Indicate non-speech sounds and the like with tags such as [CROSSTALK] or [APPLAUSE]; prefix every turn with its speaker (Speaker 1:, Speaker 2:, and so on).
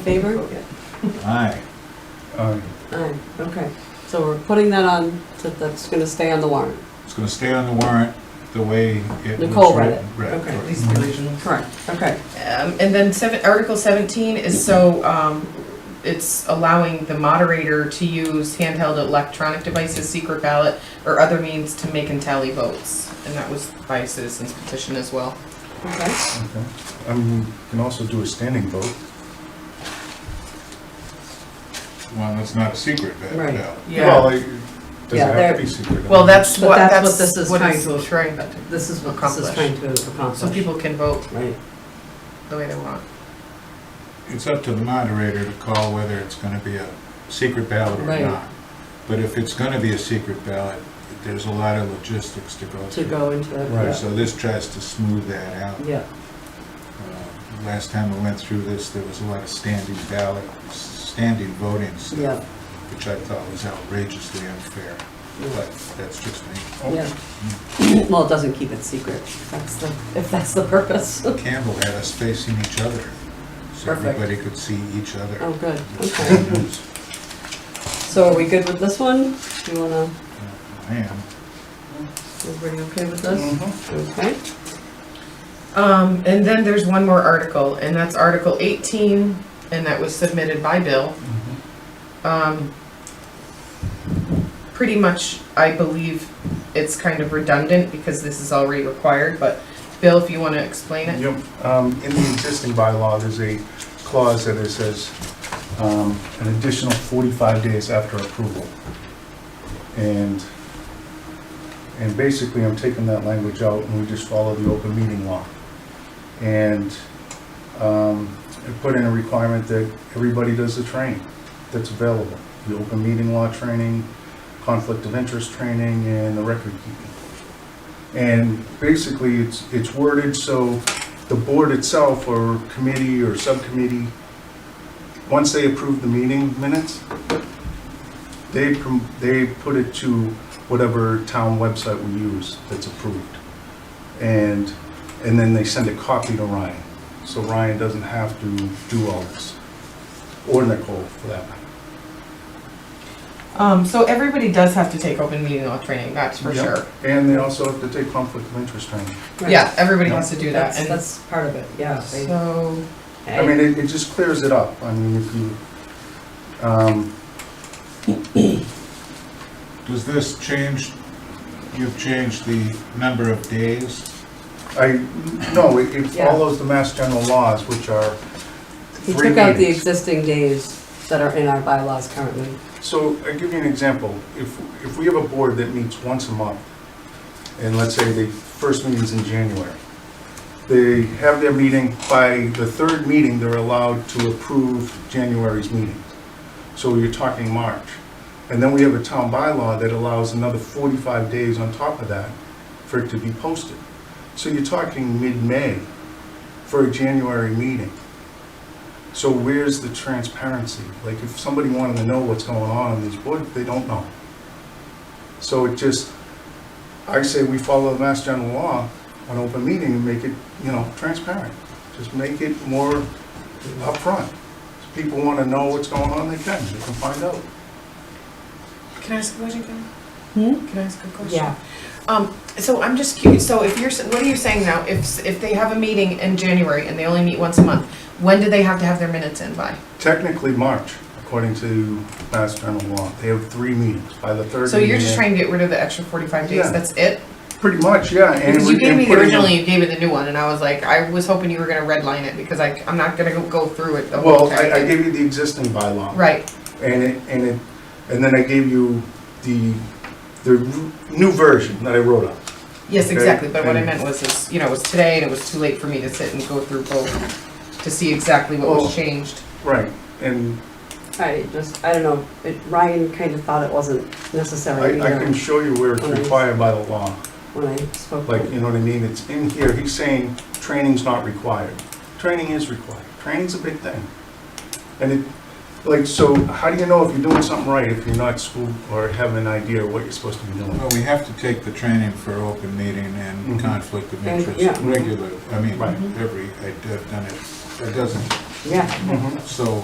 Speaker 1: favor?
Speaker 2: Aye.
Speaker 3: Aye.
Speaker 1: Aye, okay. So we're putting that on, so that's gonna stay on the warrant.
Speaker 2: It's gonna stay on the warrant the way it was
Speaker 1: Nicole read
Speaker 2: written.
Speaker 1: it.
Speaker 2: Right,
Speaker 1: Okay.
Speaker 2: correct.
Speaker 4: These are the original.
Speaker 1: Correct. Okay,
Speaker 4: Um, and then seven, Article seventeen is so, um, it's allowing the moderator to use handheld electronic devices, secret ballot, or other means to make and tally votes. And that was by a citizens petition as well.
Speaker 1: okay.
Speaker 3: Okay. I mean, we can also do a standing vote.
Speaker 2: Well, that's not a secret, that,
Speaker 1: Right.
Speaker 2: no.
Speaker 3: Well, it doesn't
Speaker 1: Yeah,
Speaker 3: have
Speaker 1: they're-
Speaker 3: to be secret.
Speaker 4: Well, that's
Speaker 1: But
Speaker 4: what,
Speaker 1: that's
Speaker 4: that's
Speaker 1: what this is
Speaker 4: what
Speaker 1: trying
Speaker 4: it's
Speaker 1: to-
Speaker 4: trying,
Speaker 1: This is what this is
Speaker 4: Accomplish.
Speaker 1: trying to accomplish.
Speaker 4: so people can vote
Speaker 1: Right.
Speaker 4: the way they want.
Speaker 2: It's up to the moderator to call whether it's gonna be a secret ballot or
Speaker 1: Right.
Speaker 2: not. But if it's gonna be a secret ballot, there's a lot of logistics to go
Speaker 1: To
Speaker 2: through.
Speaker 1: go into that.
Speaker 3: Right.
Speaker 2: So this tries to smooth that out.
Speaker 1: Yeah,
Speaker 2: Uh, Last time we went through this, there was a lot of standing ballot, standing voting
Speaker 1: yeah,
Speaker 2: stuff, which I thought was outrageously unfair,
Speaker 1: yeah.
Speaker 2: but that's just me.
Speaker 1: yeah. Well, it doesn't keep it secret, if that's the, if that's the purpose.
Speaker 2: Campbell had us facing each other, so
Speaker 1: Perfect.
Speaker 2: everybody could see each other.
Speaker 1: Oh, good,
Speaker 2: It's
Speaker 1: okay.
Speaker 2: bad
Speaker 1: [LAUGHS]
Speaker 2: news.
Speaker 1: So are we good with this one? Do you wanna,
Speaker 2: I am.
Speaker 1: everybody okay with this? Okay,
Speaker 4: Um, and then there's one more article, and that's Article eighteen, and that was submitted by Bill. um, pretty much, I believe it's kind of redundant because this is already required, but Bill, if you want to explain it?
Speaker 3: Yep, um, in the existing bylaw, there's a clause that it says, um, an additional forty-five days after approval. And, and basically, I'm taking that language out and we just follow the open meeting law. And, um, I put in a requirement that everybody does the training that's available. The open meeting law training, conflict of interest training, and the record keeping. And basically, it's, it's worded so the board itself or committee or subcommittee, once they approve the meeting minutes, they, prom- they put it to whatever town website we use that's approved. And, and then they send a copy to Ryan. So Ryan doesn't have to do all this, or Nicole for that matter.
Speaker 4: Um, so everybody does have to take open meeting law training, that's for
Speaker 3: Yeah.
Speaker 4: sure.
Speaker 3: And they also have to take conflict of interest training.
Speaker 1: Right.
Speaker 4: Yeah, everybody has to do that,
Speaker 1: That's,
Speaker 4: and
Speaker 1: that's part of it, yeah. they-
Speaker 4: so,
Speaker 3: I mean, it, it just clears it up, I mean, if you, um,
Speaker 2: Does this change, you've changed the number of days?
Speaker 3: I, no, it it
Speaker 1: Yeah.
Speaker 3: follows the mass general laws, which are
Speaker 1: He
Speaker 3: three
Speaker 1: took out the
Speaker 3: meetings.
Speaker 1: existing days that are in our bylaws currently.
Speaker 3: So I give you an example, if, if we have a board that meets once a month, and let's say the first meeting's in January, they have their meeting, by the third meeting, they're allowed to approve January's meeting. So you're talking March. And then we have a town bylaw that allows another 45 days on top of that for it to be posted. So you're talking mid-May for a January meeting. So where's the transparency? Like, if somebody wanted to know what's going on in these boards, they don't know. So it just, I say we follow the Mass General Law on open meeting and make it, you know, transparent. Just make it more upfront. If people want to know what's going on, they can, they can find out.
Speaker 4: can I ask a question, Karen?
Speaker 1: Hmm?
Speaker 4: Can I ask a question?
Speaker 1: Yeah,
Speaker 4: Um, so I'm just curious, so if you're, s- what are you saying now, if, s- if they have a meeting in January and they only meet once a month, when do they have to have their minutes in by?
Speaker 3: Technically, March, according to Mass General Law, they have three meetings by the third.
Speaker 4: So you're
Speaker 3: meeting-
Speaker 4: just trying to get rid of the extra forty-five
Speaker 3: Yeah.
Speaker 4: days, that's it?
Speaker 3: Pretty much, yeah. and
Speaker 4: Because you
Speaker 3: we-
Speaker 4: gave
Speaker 3: and
Speaker 4: me the
Speaker 3: putting in-
Speaker 4: original, you gave me the new one, and I was like, I was hoping you were gonna redline it, because I, I'm not gonna go- go through it the whole
Speaker 3: Well, I, I
Speaker 4: entire thing.
Speaker 3: gave you the existing bylaw.
Speaker 4: Right,
Speaker 3: and it, and it, and then I gave you the, the new version that I wrote up.
Speaker 4: yes,
Speaker 3: Okay,
Speaker 4: exactly, but what I
Speaker 3: and-
Speaker 4: meant was, is, you know, it was today, and it was too late for me to sit and go through both, to see exactly what
Speaker 3: Well-
Speaker 4: was changed.
Speaker 3: Right, and
Speaker 1: I just, I don't know, it- Ryan kind of thought it wasn't necessary
Speaker 3: I, I can
Speaker 1: either
Speaker 3: show you where it's required by the law,
Speaker 1: when I spoke.
Speaker 3: like, you know what I mean, it's in here, he's saying training's not required. Training is required, training's a big thing. And it, like, so how do you know if you're doing something right if you're not school or have an idea what you're supposed to be doing?
Speaker 2: Well, we have to take the training for open meeting and
Speaker 3: Mhm.
Speaker 2: conflict of
Speaker 1: And-
Speaker 2: interest
Speaker 1: yeah.
Speaker 2: regular, I mean,
Speaker 3: Right.
Speaker 2: every, I've done it, a dozen.
Speaker 1: Yeah.
Speaker 3: Mhm.
Speaker 2: So